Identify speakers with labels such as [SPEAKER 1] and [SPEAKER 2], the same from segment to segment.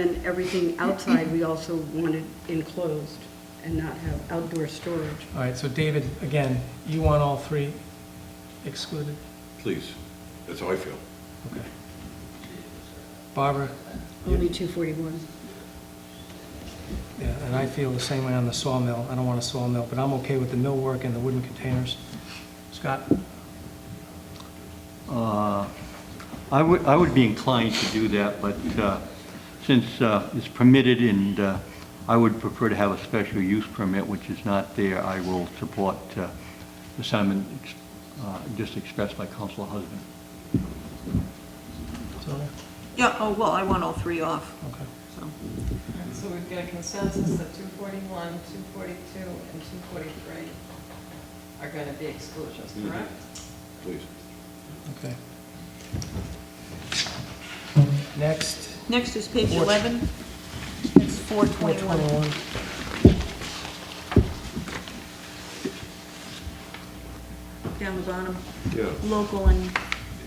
[SPEAKER 1] And everything outside, we also wanted enclosed and not have outdoor storage.
[SPEAKER 2] All right, so David, again, you want all three excluded?
[SPEAKER 3] Please, that's how I feel.
[SPEAKER 2] Okay. Barbara,
[SPEAKER 1] Only 241.
[SPEAKER 2] yeah, and I feel the same way on the sawmill. I don't want a sawmill, but I'm okay with the millwork and the wooden containers. Scott?
[SPEAKER 4] Uh, I would, I would be inclined to do that, but uh, since uh, it's permitted and uh, I would prefer to have a special use permit, which is not there, I will support uh, the sentiment ex- uh, just expressed by Council Husband.
[SPEAKER 2] Sylvia?
[SPEAKER 5] Yeah, oh, well, I want all three off,
[SPEAKER 2] Okay.
[SPEAKER 5] so.
[SPEAKER 6] And So we've got a consensus that 241, 242, and 243 are going to be exclusions, correct?
[SPEAKER 3] Please.
[SPEAKER 2] Okay. Next,
[SPEAKER 5] Next is page
[SPEAKER 2] Four-
[SPEAKER 5] 11. It's 421.
[SPEAKER 2] 421.
[SPEAKER 5] Down the bottom,
[SPEAKER 3] Yeah.
[SPEAKER 5] local and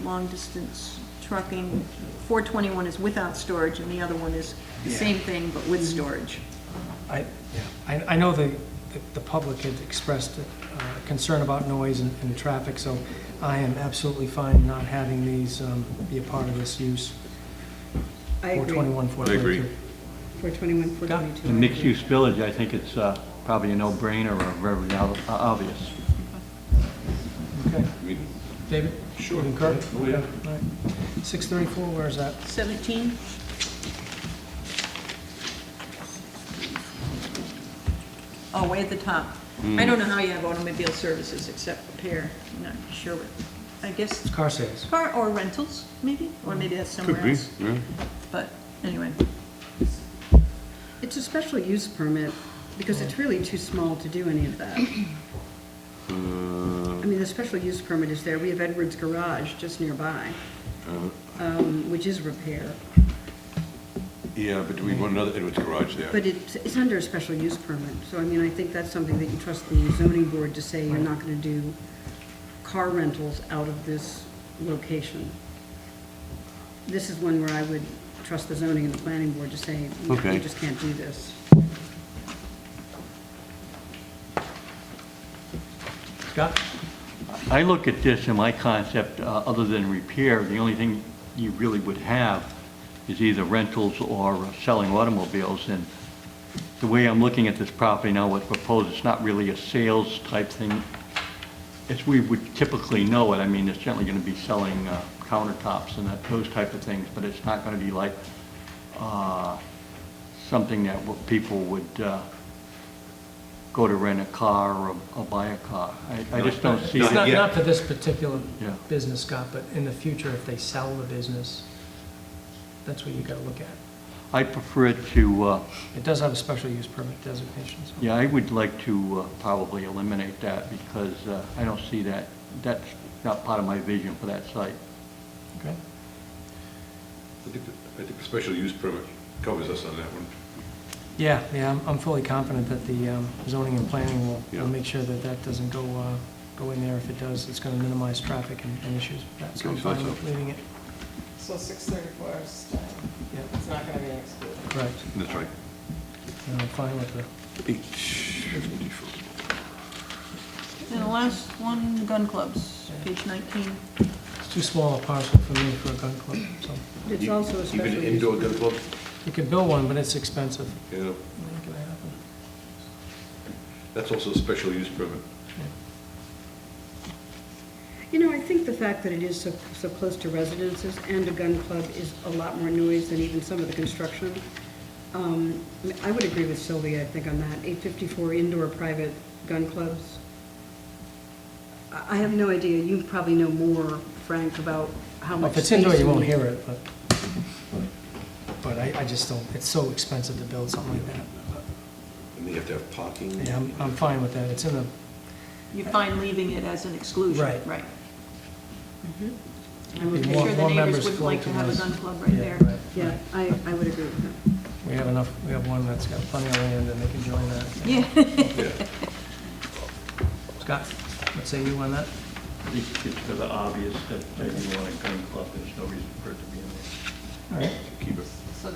[SPEAKER 5] long-distance trucking. 421 is without storage, and the other one is the
[SPEAKER 2] Yeah. Mm-hmm.
[SPEAKER 5] same thing, but with storage.
[SPEAKER 2] I, yeah, I, I know the, the- the public had expressed uh, concern about noise and, and traffic, so I am absolutely fine not having these um, be a part of this use.
[SPEAKER 1] I agree.
[SPEAKER 2] 421,
[SPEAKER 3] I agree.
[SPEAKER 1] 421,
[SPEAKER 2] 422.
[SPEAKER 4] The
[SPEAKER 1] 422.
[SPEAKER 4] mixed-use village, I think it's uh, probably a no-brainer or very ob- obvious.
[SPEAKER 2] Okay,
[SPEAKER 3] I mean,
[SPEAKER 2] David?
[SPEAKER 3] Sure.
[SPEAKER 2] You concur?
[SPEAKER 3] Oh, yeah.
[SPEAKER 2] All right. 634, where is that?
[SPEAKER 5] 17, oh, way at the top. I don't know how you have automobile services except repair, I'm not sure what, I guess,
[SPEAKER 2] It's car sales.
[SPEAKER 5] car or rentals, maybe? Or maybe that's somewhere
[SPEAKER 3] Could be,
[SPEAKER 5] else.
[SPEAKER 3] yeah.
[SPEAKER 5] But, anyway,
[SPEAKER 1] It's a special use permit because it's really too small to do any of that. I
[SPEAKER 3] Uh,
[SPEAKER 1] mean, the special use permit is there. We have Edwards Garage just nearby, um, which is repair.
[SPEAKER 3] Yeah, but do we want another Edwards garage there?
[SPEAKER 1] But it's, it's under a special use permit, so I mean, I think that's something that you trust the zoning board to say you're not gonna do car rentals out of this location. This is one where I would trust the zoning and the planning board to say, you
[SPEAKER 3] Okay.
[SPEAKER 1] just can't do this.
[SPEAKER 2] Scott?
[SPEAKER 4] I look at this and my concept, uh, other than repair, the only thing you really would have is either rentals or uh, selling automobiles. And the way I'm looking at this property now, what's proposed, it's not really a sales type thing. As we would typically know it, I mean, it's generally going to be selling uh, countertops and that- those type of things, but it's not going to be like uh, something that w- people would uh, go to rent a car or- or buy a car. I- I just don't see
[SPEAKER 2] It's
[SPEAKER 4] that.
[SPEAKER 2] not,
[SPEAKER 3] yet.
[SPEAKER 2] not for this particular
[SPEAKER 4] Yeah.
[SPEAKER 2] business, Scott, but in the future, if they sell the business, that's what you gotta look at.
[SPEAKER 4] I prefer it to, uh,
[SPEAKER 2] It does have a special use permit designation, so.
[SPEAKER 4] yeah, I would like to uh, probably eliminate that because uh, I don't see that, that's not part of my vision for that site.
[SPEAKER 2] Okay.
[SPEAKER 3] I think, the- I think the special use permit covers us on that one.
[SPEAKER 2] Yeah, yeah, I'm, I'm fully confident that the um, zoning and planning will,
[SPEAKER 3] Yeah.
[SPEAKER 2] will make sure that that doesn't go, uh, go in there. If it does, it's gonna minimize traffic and, and issues with that, so I'm
[SPEAKER 3] Okay, so that's
[SPEAKER 2] fine with
[SPEAKER 3] a-
[SPEAKER 2] leaving it.
[SPEAKER 6] So 634 is, staying.
[SPEAKER 2] Yeah,
[SPEAKER 6] it's not going to be an exclusion.
[SPEAKER 2] correct.
[SPEAKER 3] That's right.
[SPEAKER 2] And I'm fine with the,
[SPEAKER 3] Eight fifty-four.
[SPEAKER 5] and the last one, gun clubs, page 19.
[SPEAKER 2] it's too small a parcel for me for a gun club, so.
[SPEAKER 1] It's also a special
[SPEAKER 3] Even
[SPEAKER 1] use.
[SPEAKER 3] indoor gun club,
[SPEAKER 2] You could build one, but it's expensive.
[SPEAKER 3] yeah,
[SPEAKER 2] Ain't gonna happen.
[SPEAKER 3] that's also a special use permit.
[SPEAKER 1] You know, I think the fact that it is so, so close to residences and a gun club is a lot more noise than even some of the construction. Um, I would agree with Sylvia, I think, on that, eight fifty-four indoor private gun clubs. I, I have no idea, you probably know more, Frank, about how much
[SPEAKER 2] If
[SPEAKER 1] space.
[SPEAKER 2] it's indoor, you won't
[SPEAKER 1] need.
[SPEAKER 2] hear it, but, but I, I just don't, it's so expensive to build something like that.
[SPEAKER 3] And they have to have parking.
[SPEAKER 2] Yeah, I'm, I'm fine with that. It's in the,
[SPEAKER 5] You find leaving it as an exclusion,
[SPEAKER 2] Right.
[SPEAKER 5] right?
[SPEAKER 1] I'm
[SPEAKER 2] Be
[SPEAKER 1] okay.
[SPEAKER 2] more-
[SPEAKER 5] I'm sure
[SPEAKER 2] more
[SPEAKER 5] the
[SPEAKER 2] members
[SPEAKER 5] neighbors would like to
[SPEAKER 2] floating
[SPEAKER 5] have a
[SPEAKER 2] us.
[SPEAKER 5] gun club right
[SPEAKER 2] Yeah,
[SPEAKER 5] there.
[SPEAKER 2] right.
[SPEAKER 1] Yeah, I, I would agree with that.
[SPEAKER 2] we have enough, we have one that's got plenty of land and they can join that.
[SPEAKER 5] Yeah.
[SPEAKER 3] Yeah.
[SPEAKER 2] Scott, what say you on that?
[SPEAKER 4] I think it's rather obvious that uh, you want a gun club, there's no reason for it to be in there.
[SPEAKER 2] All right,
[SPEAKER 3] Keep it.